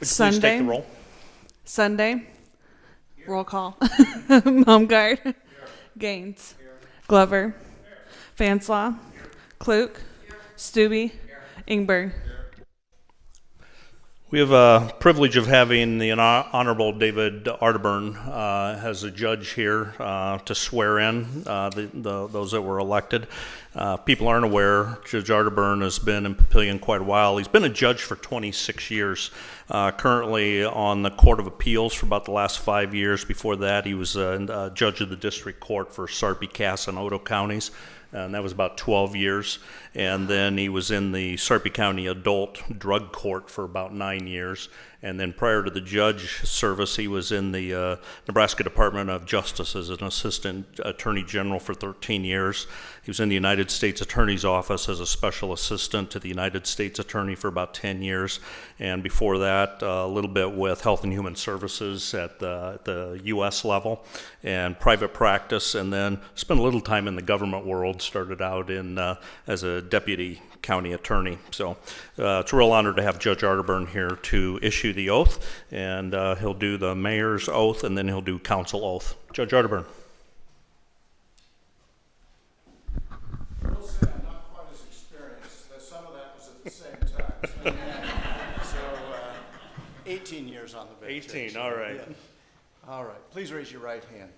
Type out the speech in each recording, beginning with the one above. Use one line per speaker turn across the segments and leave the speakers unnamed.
Would you please take
Sunday?
the roll?
Sunday. Roll call. Baumgart. Gaines. Glover. Fanslaw. Klug. Stubbe. Ingberg.
We have a privilege of having the Hon- Honorable David Arterburn uh, as a judge here uh, to swear in uh, the, the, those that were elected. Uh, people aren't aware, Judge Arterburn has been in Papillion quite a while. He's been a judge for 26 years, uh, currently on the Court of Appeals for about the last five years. Before that, he was a, a judge of the District Court for Sarpy, Cass, and Odo counties and that was about 12 years. And then he was in the Sarpy County Adult Drug Court for about nine years. And then prior to the judge service, he was in the uh, Nebraska Department of Justice as an assistant attorney general for 13 years. He was in the United States Attorney's Office as a special assistant to the United States Attorney for about 10 years. And before that, uh, a little bit with Health and Human Services at the, at the U.S. level and private practice, and then spent a little time in the government world. Started out in uh, as a deputy county attorney. So uh, it's a real honor to have Judge Arterburn here to issue the oath, and uh, he'll do the mayor's oath, and then he'll do council oath. Judge Arterburn.
will say I'm not quite as experienced, though some of that was at the same time. So, uh, 18 years on the bench.
18,
actually.
all right.
Yeah. All right, please raise your right hand.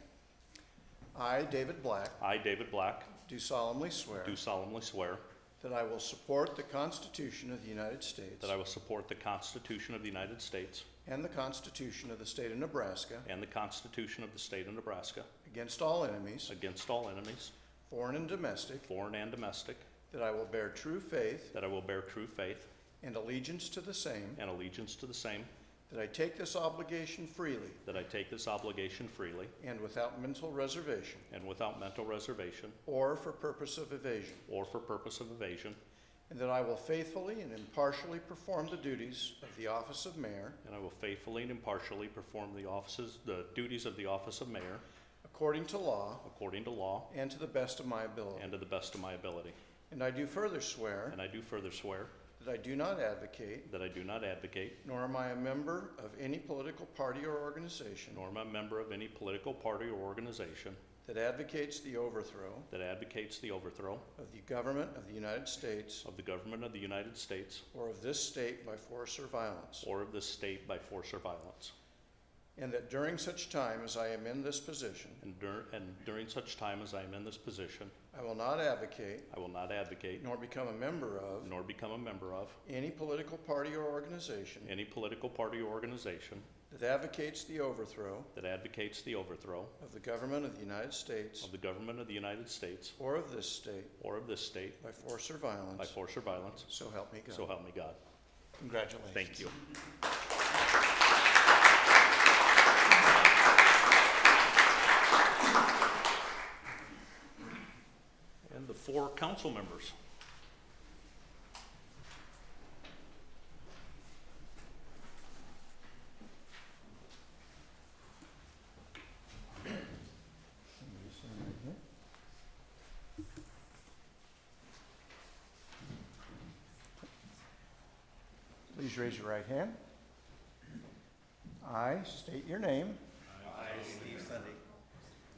I, David Black,
I, David Black,
do solemnly swear
do solemnly swear
that I will support the Constitution of the United States
that I will support the Constitution of the United States
and the Constitution of the State of Nebraska
and the Constitution of the State of Nebraska
against all enemies,
against all enemies,
foreign and domestic,
foreign and domestic,
that I will bear true faith
that I will bear true faith
and allegiance to the same,
and allegiance to the same,
that I take this obligation freely
that I take this obligation freely
and without mental reservation
and without mental reservation
or for purpose of evasion,
or for purpose of evasion,
and that I will faithfully and impartially perform the duties of the office of mayor
and I will faithfully and impartially perform the offices, the duties of the office of mayor
according to law
according to law
and to the best of my ability.
and to the best of my ability.
And I do further swear
And I do further swear
that I do not advocate,
that I do not advocate,
nor am I a member of any political party or organization
nor am I a member of any political party or organization
that advocates the overthrow
that advocates the overthrow
of the government of the United States
of the government of the United States
or of this state by force or violence,
or of this state by force or violence.
and that during such time as I am in this position,
And dur- and during such time as I am in this position,
I will not advocate
I will not advocate
nor become a member of
nor become a member of
any political party or organization
any political party or organization
that advocates the overthrow
that advocates the overthrow
of the government of the United States
of the government of the United States
or of this state
or of this state
by force or
by
violence,
force or violence,
so help me
so
God.
help me God.
Congratulations.
Thank you. And the four council members.
Please raise your right hand. I state your name. I, Steve Sunday.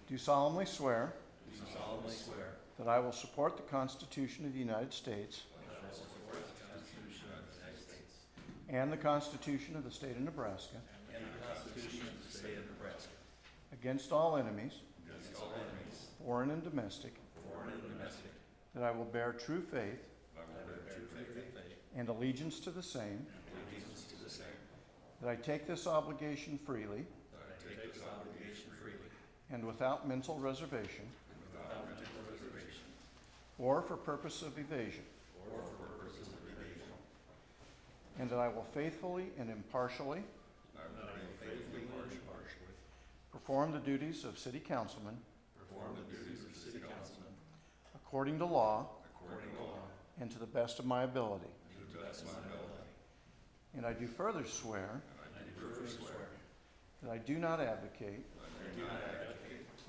Do solemnly swear. Do solemnly swear. That I will support the Constitution of the United States. And the Constitution of the State of Nebraska. Against all enemies. Foreign and domestic. That I will bear true faith. And allegiance to the same. That I take this obligation freely. And without mental reservation. Or for purpose of evasion. And that I will faithfully and impartially. Perform the duties of city councilman. According to law. And to the best of my ability. And I do further swear. That I do not advocate.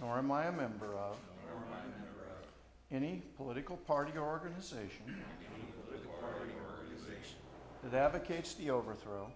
Nor am I a member of. Any political party or organization. That advocates the overthrow.